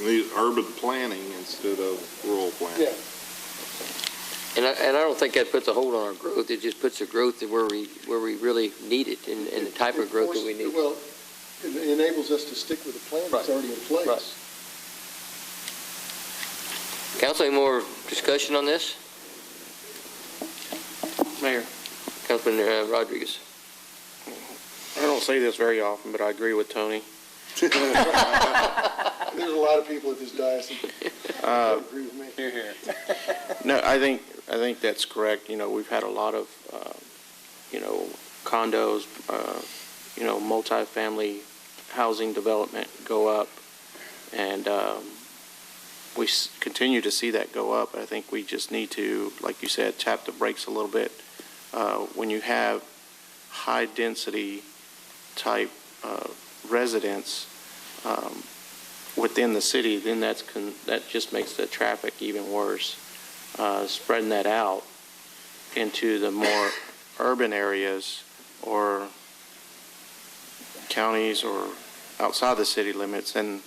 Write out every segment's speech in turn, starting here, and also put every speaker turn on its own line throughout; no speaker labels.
need urban planning instead of rural planning.
Yeah.
And I, and I don't think that puts a hold on our growth, it just puts the growth where we, where we really need it and, and the type of growth that we need.
Well, it enables us to stick with the plan that's
Right.
already in
Right.
place.
Council, any more discussion on this?
Mayor,
Councilman uh, Rodriguez?
I don't say this very often, but I agree with Tony.
There's a lot of people at this diocese
Uh,
that agree with me.
No, I think, I think that's correct. You know, we've had a lot of, uh, you know, condos, uh, you know, multifamily housing development go up. And um, we s- continue to see that go up. I think we just need to, like you said, tap the brakes a little bit. Uh, When you have high-density type uh, residents um, within the city, then that's, con- that just makes the traffic even worse uh, spreading that out into the more urban areas or counties or outside the city limits, and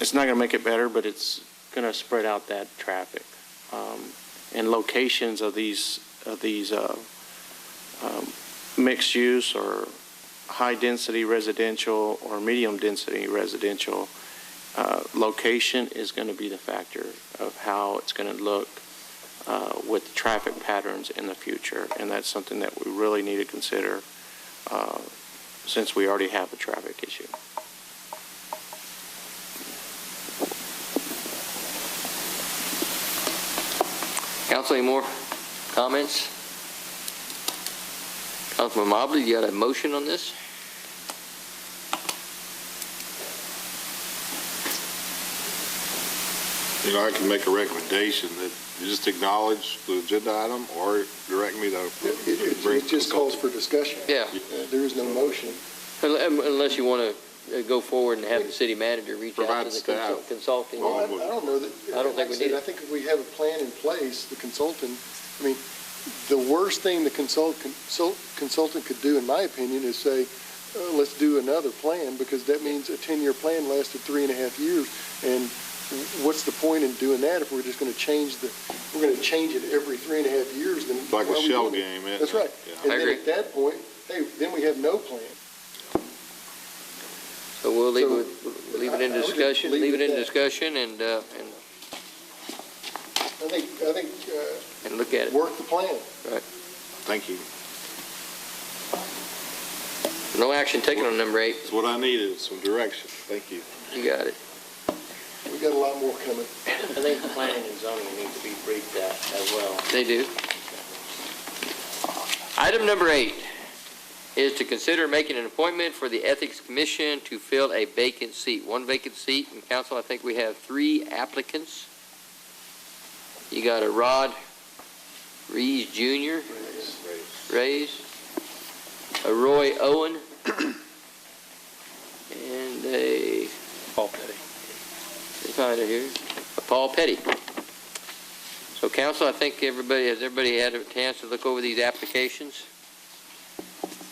it's not going to make it better, but it's going to spread out that traffic. Um, And locations of these, of these uh, um, mixed use or high-density residential or medium-density residential, uh, location is going to be the factor of how it's going to look uh, with traffic patterns in the future, and that's something that we really need to consider uh, since we already have a traffic issue.
Council, any more comments? Councilman Mobley, you got a motion on this?
You know, I can make a recommendation that you just acknowledge the agenda item or direct me to
It- It
bring.
it- it just calls for discussion.
Yeah,
Uh, There is no motion.
Un- unless you want to go forward and have the city manager reach out
Provide
to the
staff.
consul- consulting.
Well, I I
would-
don't know that.
I don't think
like
we
said,
need it.
I think if we have a plan in place, the consultant, I mean, the worst thing the consult, consult- consultant could do, in my opinion, is say, uh, let's do another plan, because that means a 10-year plan lasted three and a half years, and what's the point in doing that if we're just going to change the, we're going to change it every three and a half years, then.
Like
why
a
are we
shell
doing it?
game, eh? isn't
That's
it?
right.
Yeah.
And
I
then
agree.
at that point, hey, then we have no plan.
So we'll leave
So-
it, we'll leave it in
I- I would just
discussion,
leave
leave it
it
in
at that.
discussion and, uh, and,
I think, I think, uh,
and look at it.
work the plan.
Thank you.
No action taken on number eight,
That's what I needed, some direction. Thank you.
you got it.
We got a lot more coming.
I think planning and zoning need to be briefed that as well.
They do. Item number eight is to consider making an appointment for the Ethics Commission to fill a vacant seat. One vacant seat, and council, I think we have three applicants. You got a Rod Reeves Jr., Reyes, a Roy Owen, and a... Paul Petty. It's not here, a Paul Petty. So council, I think everybody, has everybody had a chance to look over these applications?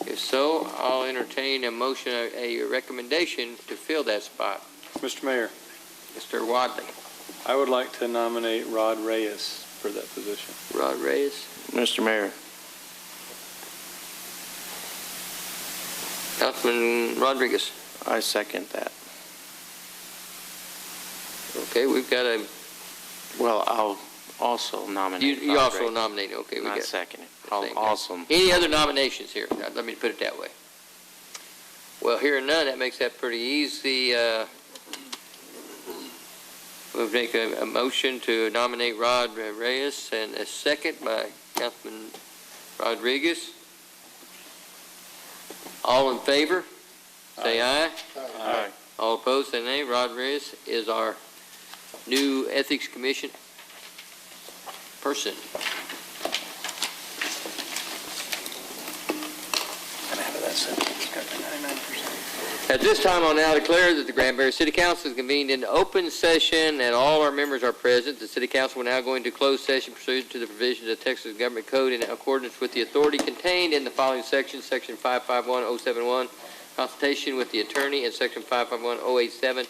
If so, I'll entertain a motion, a recommendation to fill that spot.
Mr. Mayor,
Mr. Wadley,
I would like to nominate Rod Reyes for that position.
Rod Reyes.
Mr. Mayor,
Councilman Rodriguez.
I second that.
Okay, we've got a,
Well, I'll also
you
nominate
you
Rod
also
Ray.
nominate, okay, we
Not
got.
second it.
the same
I'll
guy.
also,
Any other nominations here? Uh, Let me put it that way. Well, hearing none, that makes that pretty easy. uh, We'll make a, a motion to nominate Rod Reyes and a second by Councilman Rodriguez. All in favor? Say aye.
Aye.
All opposed, say nay. Rod Reyes is our new Ethics Commission person. At this time, I'll now declare that the Grand Prairie City Council is convened in open session and all our members are present. The City Council will now go into closed session pursuant to the provisions of Texas Government Code in accordance with the authority contained in the following sections, oh oh Section 551071, consultation with the attorney, and Section 551087,